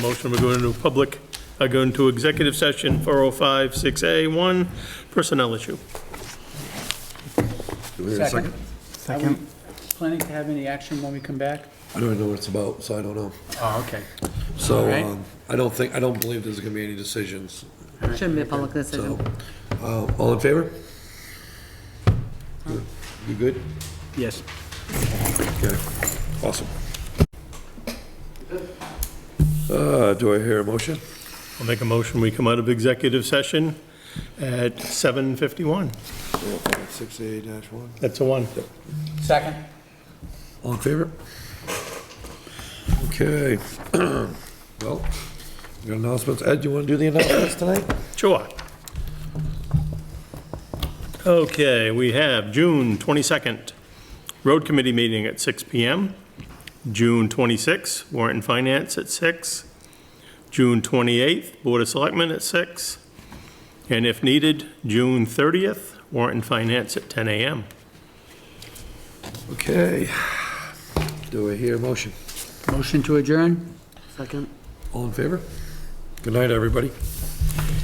Motion, we're going into public, uh, go into executive session 4056A1, personnel issue. Do we have a second? Second. Planning to have any action when we come back? I don't even know what it's about, so I don't know. Oh, okay. All So, right. um, I don't think, I don't believe there's gonna be any decisions, Shouldn't be a public so, decision. uh, all in favor? You good? Yes. Okay, awesome. Uh, do I hear a motion? I'll make a motion, we come out of executive session at 7:51. Six A dash one. That's a one. Second. All in favor? Okay, well, we got announcements. Ed, you wanna do the announcements tonight? Sure. Okay, we have June 22nd, Road Committee meeting at 6 PM. June 26th, Warrant and Finance at 6. June 28th, Board of Selectmen at 6. And if needed, June 30th, Warrant and Finance at 10 AM. Okay, do I hear a motion? Motion to adjourn? Second. All in favor? Good night, everybody.